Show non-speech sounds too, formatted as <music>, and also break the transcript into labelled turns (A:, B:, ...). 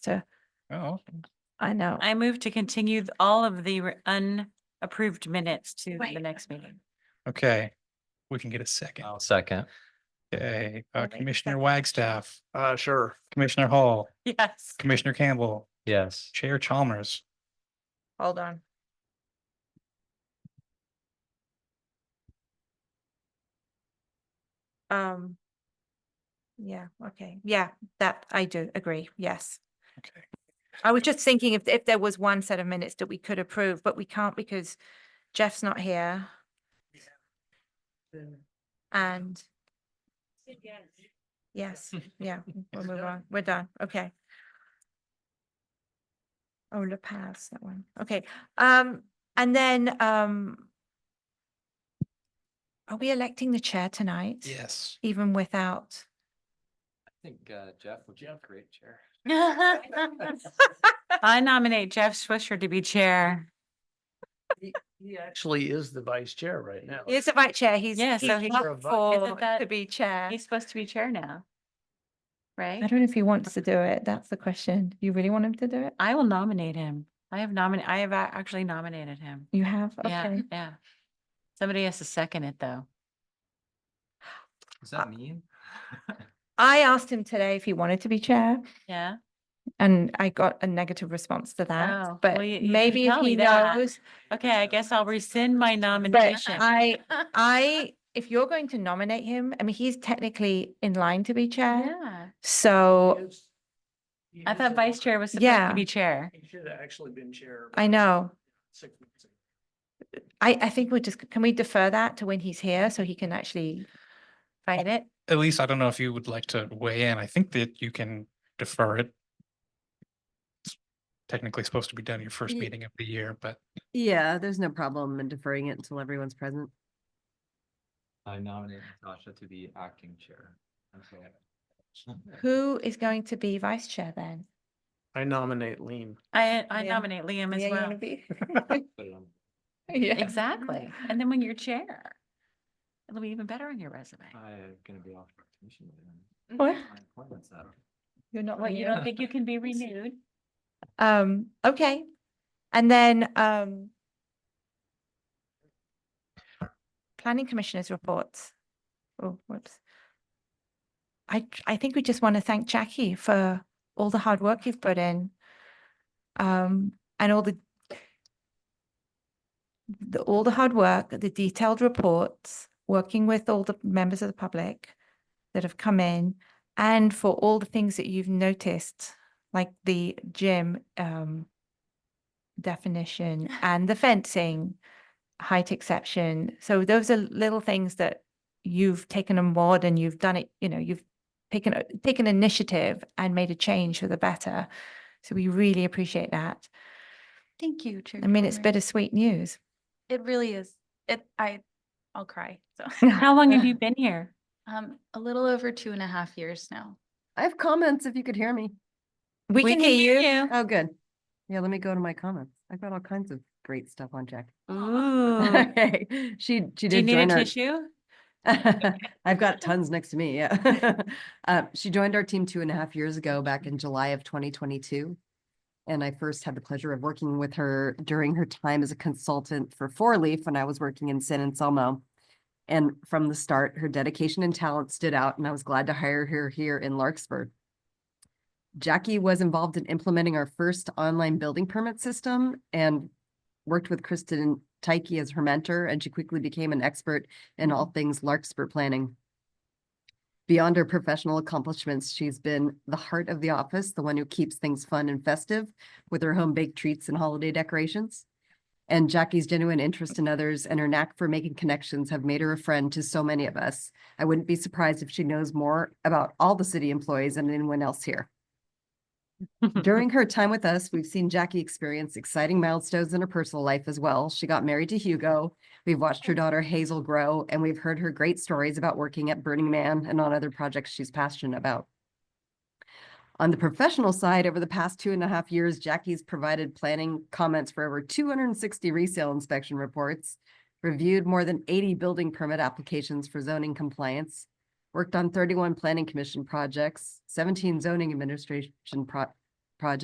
A: So
B: Oh,
A: I know.
C: I move to continue th- all of the re- unapproved minutes to the
A: Wait.
C: next meeting. <laughs>
B: okay. We can get a second.
D: I'll second.
B: Okay,
A: I'll
B: uh,
A: make a
B: Commissioner
A: second.
B: Wagstaff,
E: Uh, sure.
B: Commissioner Hall,
C: Yes.
B: Commissioner Campbell,
D: Yes.
B: Chair Chalmers.
A: Hold on. Um. Yeah, okay. Yeah, that I do agree. Yes.
B: Okay,
A: I was just thinking if, if there was one set of minutes that we could approve, but we can't because Jeff's not here. And yes, yeah, we'll
C: <laughs>
A: move on. We're done. Okay. Oh, La Paz, that one. Okay. Um, and then, um, are we electing the chair tonight?
B: yes.
A: Even without?
D: I think uh, Jeff would be a great chair.
C: I nominate Jeff Swisher to be chair.
E: He actually is the vice chair right now.
A: He is the vice chair. He's.
C: Yeah, so he's-
A: up
E: Isn't
A: For, to
C: that-
A: be chair.
C: He's supposed to be chair now.
A: I
C: Right?
A: don't know if he wants to do it. That's the question. You really want him to do it?
C: I will nominate him. I have nominated, I have a- actually nominated him.
A: You have?
C: Yeah,
A: Okay.
C: yeah. Somebody has to second it, though.
D: Does that mean?
A: I asked him today if he wanted to be chair
C: Yeah.
A: and I got a negative response to
C: Oh,
A: that. But
C: well, you- you can
A: maybe if
C: tell me
A: he
C: that.
A: knows,
C: Okay, I guess I'll rescind my
A: but
C: nomination. <laughs>
A: I, I, if you're going to nominate him, I mean, he's technically in line to be chair.
C: Yeah.
A: So
E: He
C: I
E: is
C: thought
E: the
C: vice
E: vice-
C: chair was supposed
A: Yeah.
C: to be chair.
E: He should have actually been chair.
A: I know.
E: six months ago.
A: I, I think we're just, can we defer that to when he's here so he can actually fight it?
B: At least I don't know if you would like to weigh in. I think that you can defer it. It's Technically supposed to be done your first
F: Ye-
B: meeting of the year, but
F: Yeah, there's no problem in deferring it until everyone's present.
D: I nominate Natasha to be acting chair. I'm sorry.
A: Who is going to be vice chair then?
E: I nominate Lean.
C: I, I
A: Yeah.
C: nominate Liam as well. <laughs>
D: Put it on-
A: Yeah.
C: Exactly.
A: Mm-hmm.
C: And then when you're chair, it'll be even better on your resume.
A: Uh,
D: I'm gonna be off for commission. then.
A: What?
D: My appointment's up.
A: You're not
C: What, you
A: here.
C: don't think you can
A: <laughs>
C: be renewed?
A: Um, okay. And then, um, planning commissioners reports. Oh, whoops. I, j- I think we just want to thank Jackie for all the hard work you've put in. Um, and all the the, all the hard work, the detailed reports, working with all the members of the public that have come in and for all the things that you've noticed like the gym um definition and the fencing height exception so those are little things that you've taken on board and you've done it you know you've taken a- taken initiative and made a change for the better so we really appreciate that
G: Thank you, Chair.
A: i mean it's
G: Gilmore.
A: bittersweet news
G: It really is. It, I, I'll cry. So, <laughs>
C: How long have you been here?
G: um, a little over two and a half years now.
F: I have comments if you could hear me.
A: we, can, hear you
F: Oh, good. Yeah, let me go to my comments. I've got all kinds of great stuff on Jack.
C: <laughs>
F: <laughs>
C: Ooh.
F: She, she
C: Oh. Do you
F: did
C: need a
F: join our.
C: tissue?
F: <laughs> I've got tons next to me, yeah. <laughs> Uh, she joined our team two and a half years ago, back in July of twenty twenty-two. And I first had the pleasure of working with her during her time as a consultant for Four Leaf when I was working in San Anselmo. And from the start, her dedication and talent stood out, and I was glad to hire her here in Larkspur. Jackie was involved in implementing our first online building permit system and worked with Kristen Tyke as her mentor, and she quickly became an expert in all things Larkspur planning. Beyond her professional accomplishments, she's been the heart of the office, the one who keeps things fun and festive with her home baked treats and holiday decorations. And Jackie's genuine interest in others and her knack for making connections have made her a friend to so many of us. I wouldn't be surprised if she knows more about all the city employees and anyone else here. <laughs> During her time with us, we've seen Jackie experience exciting milestones in her personal life as well. She got married to Hugo. We've watched her daughter Hazel grow, and we've heard her great stories about working at Burning Man and on other projects she's passionate about. On the professional side, over the past two and a half years, Jackie's provided planning comments for over 260 resale inspection reports, reviewed more than 80 building permit applications for zoning compliance, worked on 31 planning commission projects, 17 zoning administration pro-